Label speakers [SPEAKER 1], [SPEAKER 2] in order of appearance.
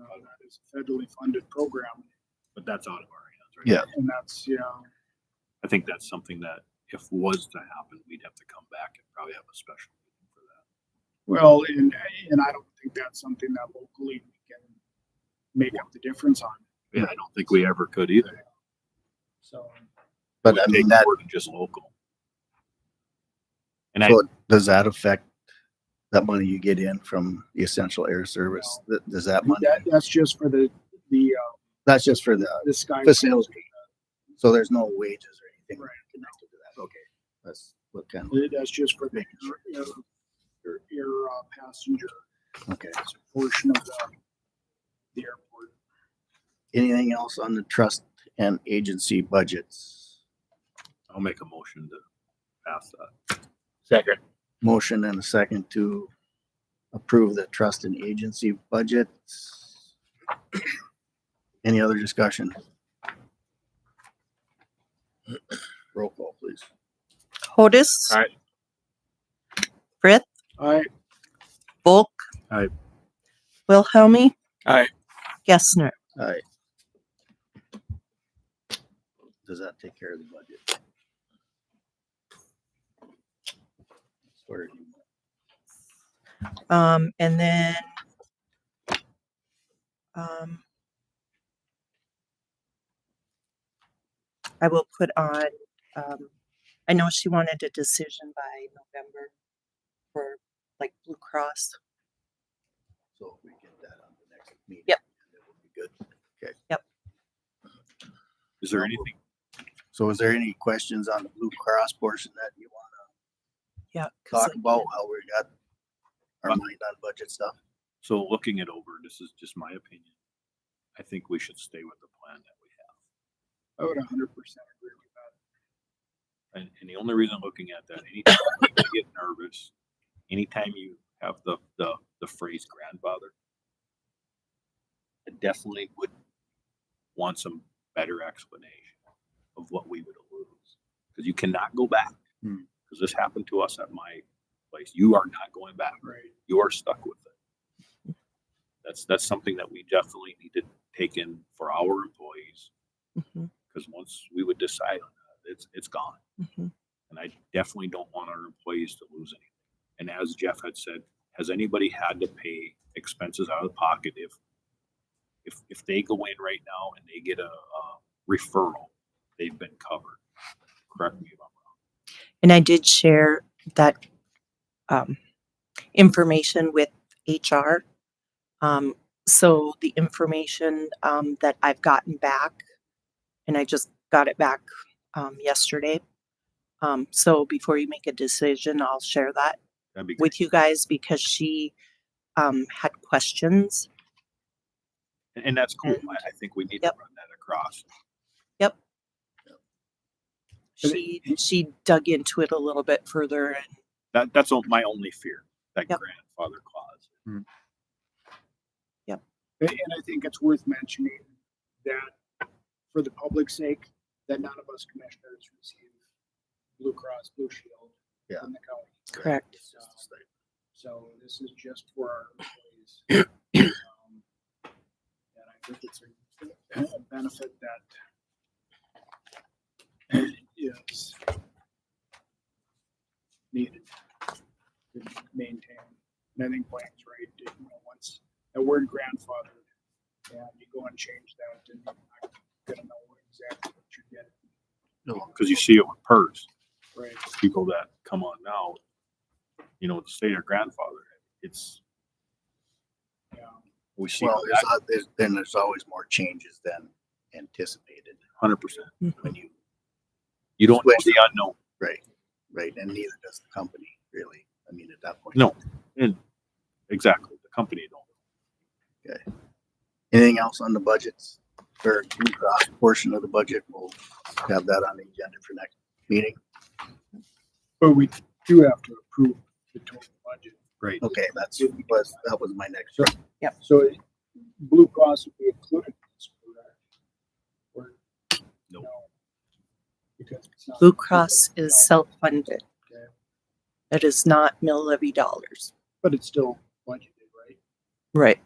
[SPEAKER 1] uh, It's a federally funded program, but that's out of our hands, right?
[SPEAKER 2] Yeah.
[SPEAKER 1] And that's, you know,
[SPEAKER 3] I think that's something that if was to happen, we'd have to come back and probably have a special meeting for that.
[SPEAKER 1] well, and, and I don't think that's something that locally we can make up the difference on,
[SPEAKER 3] Yeah, I don't think we ever could either.
[SPEAKER 1] so.
[SPEAKER 2] But
[SPEAKER 3] We'd
[SPEAKER 2] I mean,
[SPEAKER 3] take
[SPEAKER 2] that,
[SPEAKER 3] more than Just local. And I,
[SPEAKER 2] so does that affect that money you get in from the essential air service? Th- Does that money,
[SPEAKER 1] That, that's just for the, the, uh,
[SPEAKER 2] that's just for the,
[SPEAKER 1] the sky.
[SPEAKER 2] Facility. so there's no wages or anything
[SPEAKER 1] Right.
[SPEAKER 2] connected to that? Okay. That's what kind
[SPEAKER 1] That's just for the, your, your, your uh, passenger
[SPEAKER 2] of, okay.
[SPEAKER 1] portion of the, the airport.
[SPEAKER 2] Anything else on the trust and agency budgets?
[SPEAKER 3] I'll make a motion to pass that.
[SPEAKER 4] Second.
[SPEAKER 2] Motion and a second to approve the trust and agency budgets. Any other discussion? Roll call, please.
[SPEAKER 5] Hodis.
[SPEAKER 4] Aye.
[SPEAKER 5] Frith,
[SPEAKER 1] All right,
[SPEAKER 5] Bulk.
[SPEAKER 3] Aye.
[SPEAKER 5] Wilhelmie.
[SPEAKER 4] Aye.
[SPEAKER 5] Gessner.
[SPEAKER 2] All right. Does that take care of the budget? Sort of.
[SPEAKER 5] Um, and then um, I will put on, um, I know she wanted a decision by November for like Blue Cross.
[SPEAKER 2] So if we get that on the next meeting.
[SPEAKER 5] Yep.
[SPEAKER 2] that would be Good.
[SPEAKER 3] Is there anything,
[SPEAKER 2] So is there any questions on the Blue Cross portion that you want
[SPEAKER 5] Yeah.
[SPEAKER 2] to
[SPEAKER 5] 'cause
[SPEAKER 2] talk about, how we got our mind on budget stuff?
[SPEAKER 3] so looking it over, this is just my opinion. I think we should stay with the plan that we have.
[SPEAKER 1] I would hundred percent agree with that.
[SPEAKER 3] And, and the only reason I'm looking at that, anytime you get nervous, anytime you have the, the, the phrase grandfather, I definitely would want some better explanation of what we would lose. Because you cannot go back.
[SPEAKER 2] Hmm.
[SPEAKER 3] Because this happened to us at my place. You are not going back.
[SPEAKER 1] Right.
[SPEAKER 3] You are stuck with it. That's, that's something that we definitely need to take in for our employees.
[SPEAKER 5] Mhm,
[SPEAKER 3] Because once we would decide on that, it's, it's gone
[SPEAKER 5] mhm.
[SPEAKER 3] and I definitely don't want our employees to lose anything. And as Jeff had said, has anybody had to pay expenses out of pocket if, if, if they go in right now and they get a, uh referral, they've been covered? Correct me if I'm wrong.
[SPEAKER 5] And I did share that um, information with HR. Um, so the information um, that I've gotten back, and I just got it back um, yesterday. Um, so before you make a decision, I'll share that
[SPEAKER 3] That'd be great.
[SPEAKER 5] with you guys because she um, had questions.
[SPEAKER 3] And, and that's cool. I, I think we need to
[SPEAKER 5] Mm-hmm. Yep.
[SPEAKER 3] run that across.
[SPEAKER 1] And it-
[SPEAKER 5] She she dug into it a little bit further, and
[SPEAKER 3] That, that's all- my only fear, that
[SPEAKER 5] Yep.
[SPEAKER 3] grandfather clause.
[SPEAKER 1] And and I think it's worth mentioning that for the public's sake, that none of us commissioners receive Blue Cross Blue Shield
[SPEAKER 2] Yeah.
[SPEAKER 1] from the county.
[SPEAKER 5] correct.
[SPEAKER 2] It's just a statement.
[SPEAKER 1] Um, So this is just for our employees. Um, And I think it's a a benefit that is needed to maintain. And I think Blake's right, you know, once the word grandfathered, and you go and change that, and you're not gonna know exactly what you're getting.
[SPEAKER 3] Cause you see it with PERS,
[SPEAKER 1] Right.
[SPEAKER 3] people that come on now, you know, to say their grandfather, it's,
[SPEAKER 1] Yeah.
[SPEAKER 3] we see
[SPEAKER 2] Well, there's, al- uh, there's, then there's always more changes than anticipated
[SPEAKER 3] hundred percent.
[SPEAKER 2] when you,
[SPEAKER 3] You don't know
[SPEAKER 2] Switch.
[SPEAKER 3] the unknown.
[SPEAKER 2] right? And neither does the company really. I mean, at that point.
[SPEAKER 3] No. Exactly. The company don't.
[SPEAKER 2] Anything else on the budgets or Blue Cross portion of the budget? We'll have that on the agenda for next meeting.
[SPEAKER 1] But we do have to approve the total budget.
[SPEAKER 3] Right.
[SPEAKER 2] Okay, that's, was, that was my next. question.
[SPEAKER 1] So it- Blue Cross would be included in this, correct? Or-
[SPEAKER 3] No.
[SPEAKER 1] Because it's not-
[SPEAKER 5] Blue Cross is self-funded.
[SPEAKER 1] Okay.
[SPEAKER 5] It is not mill levy dollars.
[SPEAKER 1] But it's still budgeted, right?
[SPEAKER 5] Right.